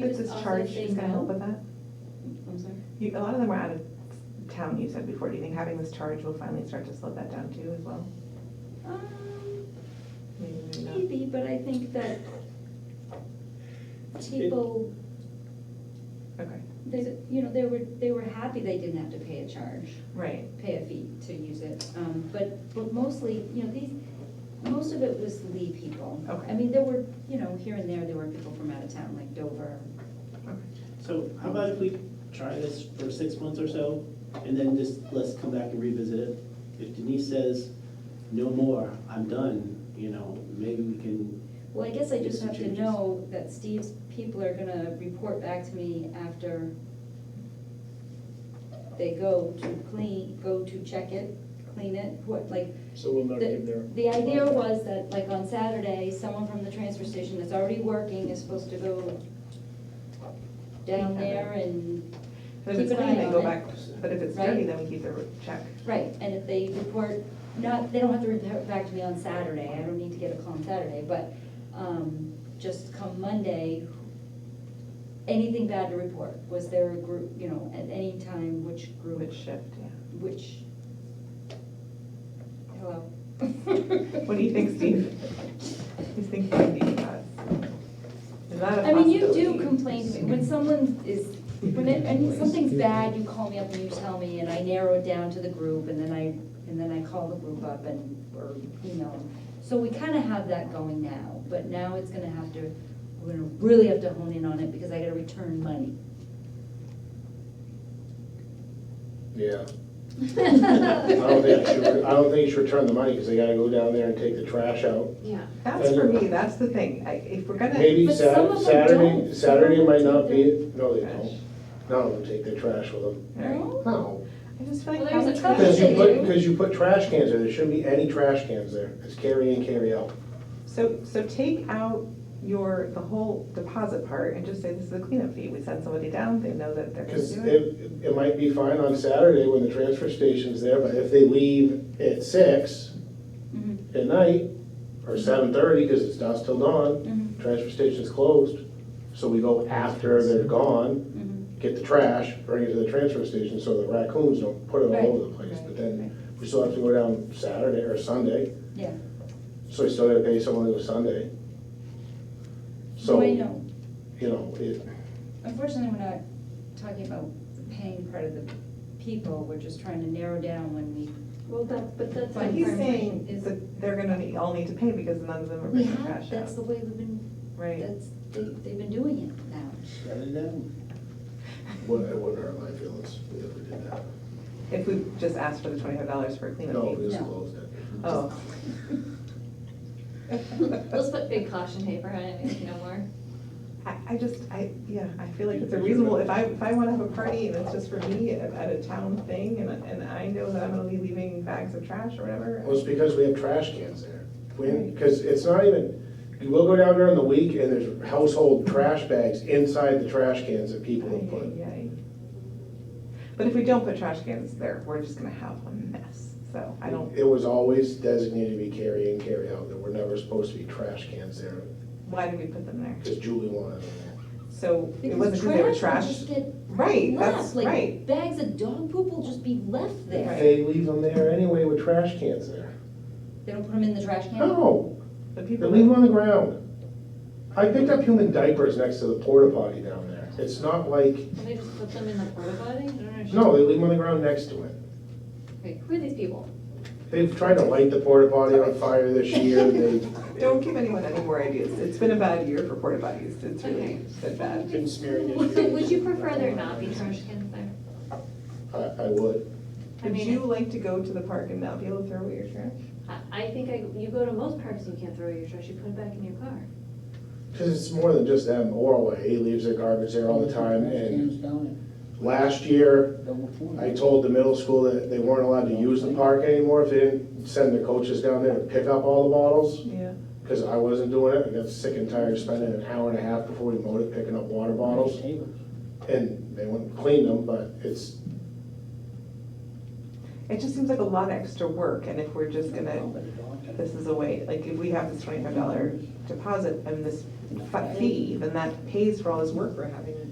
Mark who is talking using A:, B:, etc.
A: This is
B: also
A: charge
B: say
A: is gonna help
B: no?
A: with that?
B: I'm sorry.
A: You, a lot of them are out of town, you said before, do you think having this charge will finally start to slow that down too as well?
B: Um,
A: Maybe, maybe not.
B: Maybe, but I think that people,
A: Okay,
B: they, you know, they were, they were happy they didn't have to pay a charge,
A: right,
B: pay a fee to use it. Um, But, but mostly, you know, these, most of it was Lee people.
A: Okay.
B: I mean, there were, you know, here and there, there were people from out of town, like Dover.
A: okay.
C: So how about if we try this for six months or so, and then just, let's come back and revisit it? If Denise says, no more, I'm done, you know, maybe we can,
B: Well, I guess I just
C: Some
B: have to
C: changes.
B: know that Steve's people are gonna report back to me after they go to clean, go to check it, clean it, what, like,
D: So we'll not give
B: The
D: their.
B: the idea was that, like, on Saturday, someone from the transfer station that's already working is supposed to go down there and,
A: But if it's
B: Keep an
A: clean,
B: eye
A: then
B: on
A: go
B: it.
A: back, but if it's
B: Right.
A: dirty, then we keep the re- check.
B: right, and if they report, not, they don't have to report back to me on Saturday, I don't need to get a call on Saturday, but, um, just come Monday, anything bad to report, was there a group, you know, at any time, which group?
A: Which shift, yeah.
B: Which? Hello?
A: What do you think, Steve? He's thinking of these thoughts. Is that a
B: I mean, you do
A: possibility?
B: complain to me, when someone is, when it, and something's bad, you call me up and you tell me, and I narrow it down to the group, and then I, and then I call the group up and, or email them. So we kinda have that going now, but now it's gonna have to, we're gonna really have to hone in on it, because I gotta return money.
E: Yeah, I don't think you should, I don't think you should return the money, because they gotta go down there and take the trash out.
F: Yeah,
A: That's for me, that's the thing, I, if we're gonna.
E: Maybe
B: But some of them
E: Sat- Saturday,
B: don't.
E: Saturday might
B: Some of
E: not
B: them
E: be, no, they
A: Trash.
E: don't. None of them take their trash with them.
B: No?
A: Alright.
E: No,
A: I just feel like.
F: Well, there's a
A: how-
E: because you
F: They
E: put,
F: do.
E: because you put trash cans there, there shouldn't be any trash cans there, it's carry in, carry out.
A: So, so take out your, the whole deposit part and just say this is a cleanup fee. We send somebody down, they know that they're gonna
E: Because
A: do it.
E: it, it might be fine on Saturday when the transfer station's there, but if they leave at six
B: Mhm,
E: at night, or seven thirty, because it's dusk till dawn,
B: mhm,
E: transfer station's closed, so we go after they're gone,
B: mhm.
E: get the trash, bring it to the transfer station, so the raccoons don't put it
B: Right.
E: all over the place, but then we still have to go down Saturday or Sunday,
B: Yeah,
E: so we still gotta pay someone to go Sunday.
B: so
E: So,
B: I
E: you
B: know,
E: know, it,
B: unfortunately, we're not talking about the paying part of the people, we're just trying to narrow down when we
F: well, that, but that's.
A: But he's
F: our-
A: saying
B: is-
A: that they're gonna need- all need to pay because none of them are
B: We
A: bringing
B: have,
A: trash
B: that's the
A: out.
B: way we've been,
A: Right.
B: that's, they, they've been doing it now.
C: shut it down.
E: wouldn't, it wouldn't hurt my feelings if we did that.
A: If we just asked for the twenty-five dollars for a
E: No,
A: cleanup
E: we
A: fee.
E: just
B: No.
E: closed it.
A: Oh.
F: Let's put big caution tape around it, maybe no more.
A: I, I just, I, yeah, I feel like it's a reasonable, if I, if I wanna have a party and it's just for me at at a town thing and, and I know that I'm gonna be leaving bags of trash or whatever.
E: Well, it's because we have trash cans there. When, because it's not even, you will go down during the week and there's household trash bags inside the trash cans that people have
A: Ay,
E: put.
A: ay, ay. But if we don't put trash cans there, we're just gonna have a mess, so I don't,
E: It was always designated to be carry in, carry out. There were never supposed to be trash cans there
A: why did we put them there?
E: because Julie wanted them there.
A: So it wasn't because they were
B: will
A: trash.
B: just get
A: Right, that's
B: left,
A: right.
B: like bags of dog poop will just be left there.
E: They leave them there anyway with trash cans there.
B: They don't put them in the trash can?
E: No,
A: The
E: they
A: people,
E: leave them
A: that-
E: on the ground. I picked up human diapers next to the porta potty down there. It's not like,
F: Can they just put them in the porta potty? I don't understand.
E: no, they leave them on the ground next to it.
F: Wait, who are these people?
E: They've tried to light the porta potty on fire this year, they,
A: don't give anyone any more ideas. It's been a bad year for porta potties. It's really
F: Okay.
A: been bad.
D: Been smearing it.
F: So would you prefer there not be trash cans there?
E: I, I would.
F: I
A: Would
F: mean-
A: you like to go to the park and not be able to throw away your trash?
F: I, I think I, you go to most parks, you can't throw your trash, you put it back in your car.
E: Because it's more than just them, Orway, he leaves their garbage there all the time, and last year, I told the middle school that they weren't allowed to use the park anymore if they didn't send their coaches down there to pick up all the bottles,
A: Yeah.
E: because I wasn't doing it, I got sick and tired of spending an hour and a half before we mowed it picking up water bottles, and they wouldn't clean them, but it's,
A: It just seems like a lot of extra work, and if we're just gonna, this is a way, like, if we have this twenty-five dollar deposit and this fe- fee, then that pays for all this work we're having,